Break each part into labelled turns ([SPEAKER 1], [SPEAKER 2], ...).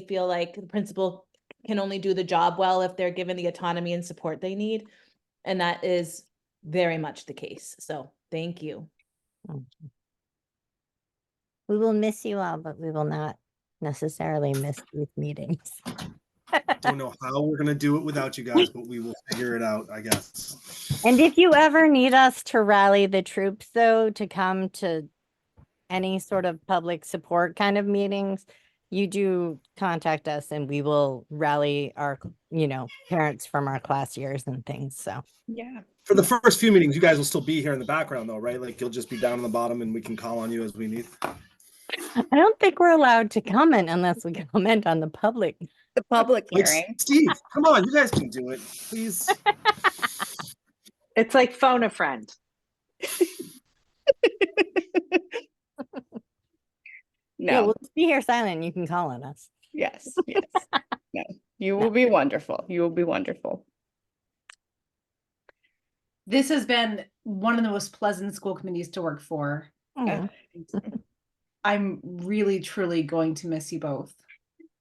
[SPEAKER 1] feel like the principal can only do the job well if they're given the autonomy and support they need. And that is very much the case. So thank you.
[SPEAKER 2] We will miss you all, but we will not necessarily miss these meetings.
[SPEAKER 3] Don't know how we're gonna do it without you guys, but we will figure it out, I guess.
[SPEAKER 2] And if you ever need us to rally the troops, though, to come to any sort of public support kind of meetings, you do contact us and we will rally our, you know, parents from our class years and things. So
[SPEAKER 4] Yeah.
[SPEAKER 3] For the first few meetings, you guys will still be here in the background though, right? Like you'll just be down on the bottom and we can call on you as we need.
[SPEAKER 2] I don't think we're allowed to comment unless we comment on the public.
[SPEAKER 4] The public
[SPEAKER 3] Like,
[SPEAKER 4] hearing.
[SPEAKER 3] Steve, come on, you guys can do it, please.
[SPEAKER 5] It's like phone a friend.
[SPEAKER 2] Yeah,
[SPEAKER 4] No,
[SPEAKER 2] we'll just be here silent. and You can call on us.
[SPEAKER 4] yes, yes. No, you will be wonderful. You will be wonderful.
[SPEAKER 6] this has been one of the most pleasant school committees to work for.
[SPEAKER 2] Mm,
[SPEAKER 6] I'm really, truly going to miss you both.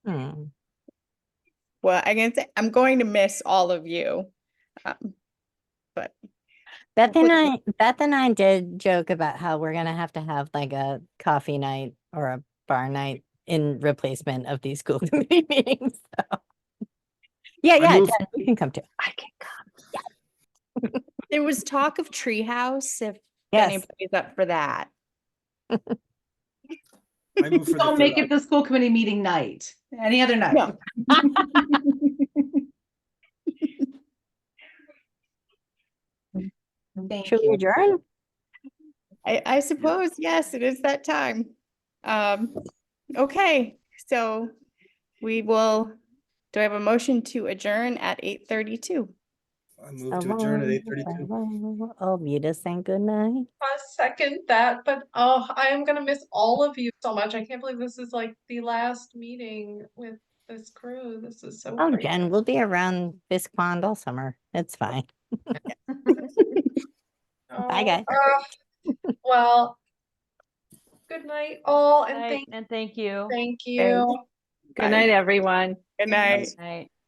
[SPEAKER 2] mm.
[SPEAKER 4] Well, I can say I'm going to miss all of you. Um, but
[SPEAKER 2] Beth and I,
[SPEAKER 4] Would-
[SPEAKER 2] Beth and I did joke about how we're gonna have to have like a coffee night or a bar night in replacement of these school committee meetings. So. Yeah, yeah,
[SPEAKER 3] move-
[SPEAKER 2] Jen, you can come too.
[SPEAKER 4] I can come. There was talk of treehouse if
[SPEAKER 2] Yes,
[SPEAKER 4] anybody's up for that.
[SPEAKER 3] I move for the
[SPEAKER 6] Don't
[SPEAKER 3] third
[SPEAKER 6] make it
[SPEAKER 3] item.
[SPEAKER 6] the school committee meeting night, any other night.
[SPEAKER 4] No.
[SPEAKER 6] Thank
[SPEAKER 2] should we
[SPEAKER 6] you.
[SPEAKER 2] adjourn?
[SPEAKER 4] I, I suppose, yes, it is that time. Um, okay, so we will, do I have a motion to adjourn at eight thirty-two?
[SPEAKER 3] I move to adjourn at eight thirty-two.
[SPEAKER 2] Oh, Vita saying good night.
[SPEAKER 7] I second that, but oh, I am gonna miss all of you so much. I can't believe this is like the last meeting with this crew. This is so.
[SPEAKER 2] Oh,
[SPEAKER 7] crazy.
[SPEAKER 2] Jen, we'll be around Fisk Pond all summer. It's fine. bye,
[SPEAKER 7] Oh,
[SPEAKER 2] guys.
[SPEAKER 7] uh, Well, good night all and
[SPEAKER 8] Night,
[SPEAKER 7] thank,
[SPEAKER 8] And thank you.
[SPEAKER 7] thank you.
[SPEAKER 8] Good night, everyone.
[SPEAKER 4] Good night.
[SPEAKER 8] Night.